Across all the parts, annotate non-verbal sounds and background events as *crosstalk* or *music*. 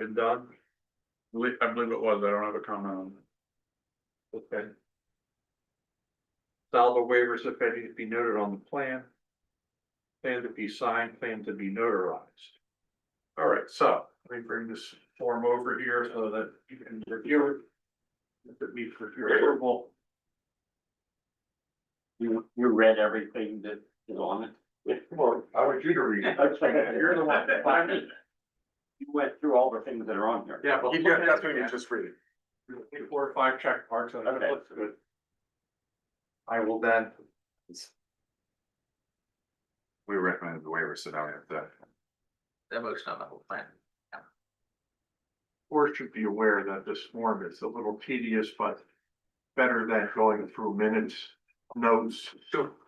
been done? Believe- I believe it was, I don't have a comment on it. Okay. Salvo waivers, if any, to be noted on the plan. Plan to be signed, plan to be notarized. All right, so let me bring this form over here so that you can review it. If it meets with your approval. You, you read everything that is on it? *laughs* Well, I want you to read it. You're the one, but I mean, you went through all the things that are on here. Yeah, but. You got, that's what you just read. Three, Four or five check marks on it, Okay. looks good. I will then We recommended the waiver, so now we have to. That motion on the whole plan. board should be aware that this form is a little tedious, but better than going through minutes, notes,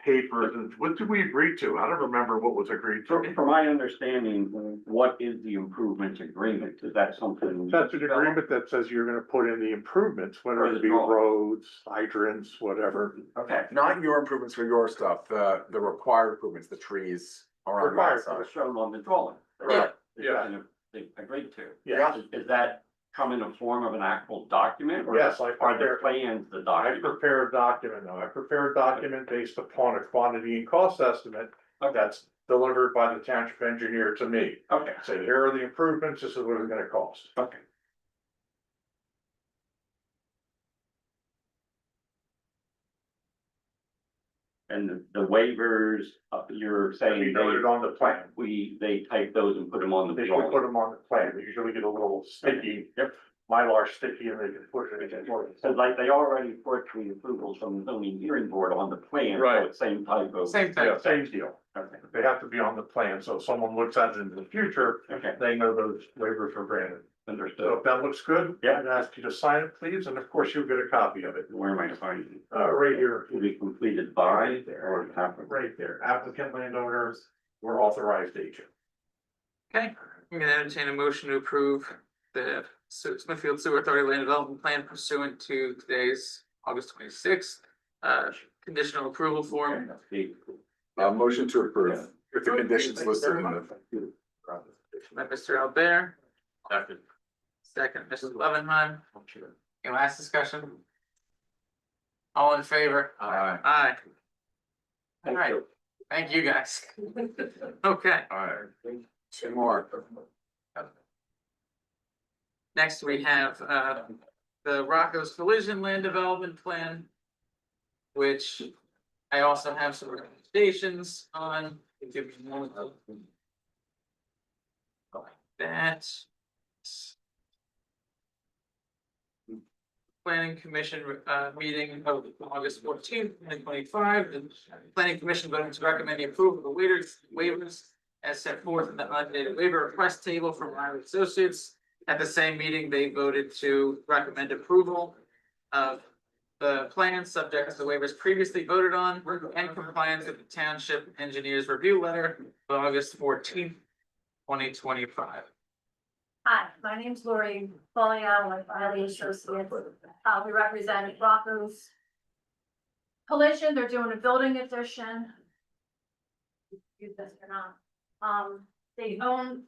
papers, and what did we agree to? I don't remember what was agreed From, to. from my understanding, what is the improvement agreement? Is that something? That's an agreement that says you're gonna put in the improvements, whether Or the it be draw. roads, hydrants, whatever. Okay. Not your improvements for your stuff, the, the required improvements, the trees around the Required, so outside. it's shown on the drawing. Right. Yeah. Kind of, They agreed to. Yes. Is- Is that come in the form of an actual document? or Yes, I- Are the plans the I document? prepare a document, now I prepare a document based upon a quantity and cost estimate Okay, that's delivered by the township engineer to me. okay, Say, here are the improvements, this is what it's gonna cost. okay. And the- the waivers, uh, you're And you saying noted they, on the plan, we, they type those and put them on the they should drawing? put them on the plan, they usually get a little sticky. Yep. Mylar sticky and they can push it against. So like they already put the approvals from the zoning hearing board on the plan, so Right. it's same type of. Same thing. Yeah, same deal, Okay, they have to be on the plan, so if someone looks at it in the future, okay, they know those waivers are granted. So understood. if that looks good, Yeah. I'd ask you to sign it, please, and of course you'll get a copy of it. Where am I finding? it? Uh, right here, To be completed by or after? right there, applicant landowners, we're authorized agent. Okay, I'm gonna entertain a motion to approve the Su- Smithfield Sewer Authority Land Development Plan pursuant to today's August twenty-sixth. Uh, conditional approval form. The- Uh, motion to approve, with the conditions listed in the. by Mr. Albert. Second, Mrs. Loveenheim. Any last discussion? All in favor? Aye. Aye, Thank Right. you. thank you guys. *laughs* Okay, Alright, two more. next we have uh the Rocco's Collision Land Development Plan. Which I also have some recommendations on. Give me one of those. Like That. Planning Commission uh meeting of August fourteenth, twenty twenty five, the planning commission voted to recommend the approval of the waivers waivers. As set forth in the updated waiver request table from Riley Associates. At the same meeting, they voted to recommend approval of the plan subject to the waivers previously voted on and compliance with the township engineer's review letter of August fourteenth, twenty twenty-five. Hi, my name's Lori Folio with Riley Associates. Uh, we represent Rocco's Collision. They're doing a building addition. Use this or not. Um, they own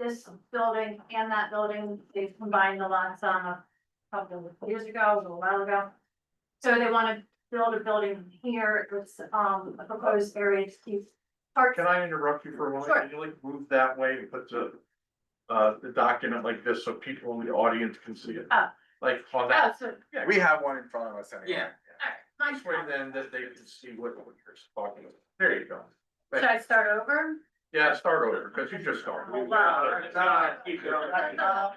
this building and that building. They've combined the lots on a couple of years ago, a little while ago. So they want to build a building here. It's, um, a proposed area to keep parks. Can I interrupt you for a moment? Sure. Can you like move that way and put the, uh, the document like this so people in the audience can see it? Oh. Like on that, Oh, so, all We have one in front of us anyway. Yeah. right, my this way fault. then that they can see what what you're talking about. There you go. Should I start over? Yeah, start over, because you just started. Oh, wow. No, keep going. So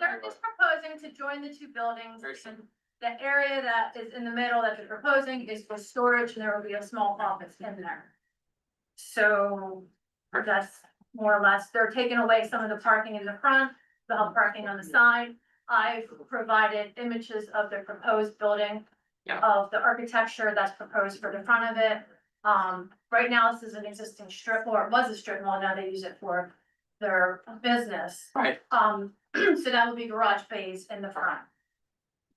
They're just proposing to join the two buildings. Very simple. The area that is in the middle that they're proposing is for storage and there will be a small office in there. So that's more or less, they're taking away some of the parking in the front, the parking on the side. I've provided images of the proposed building. Yeah. Of the architecture that's proposed for the front of it. Um, right now, this is an existing strip mall, it was a strip mall, now they use it for their business. Right. Um, *clears throat* so that would be garage bays in the front.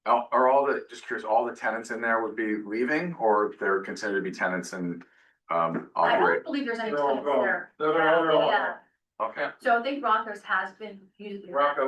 Are are all the, just curious, all the tenants in there would be leaving or they're considered to be tenants and, um, I operate? don't believe there's any They're all tenants there. gone. They're all gone. Yeah. Okay. So I think Rockers has been usually. Rocco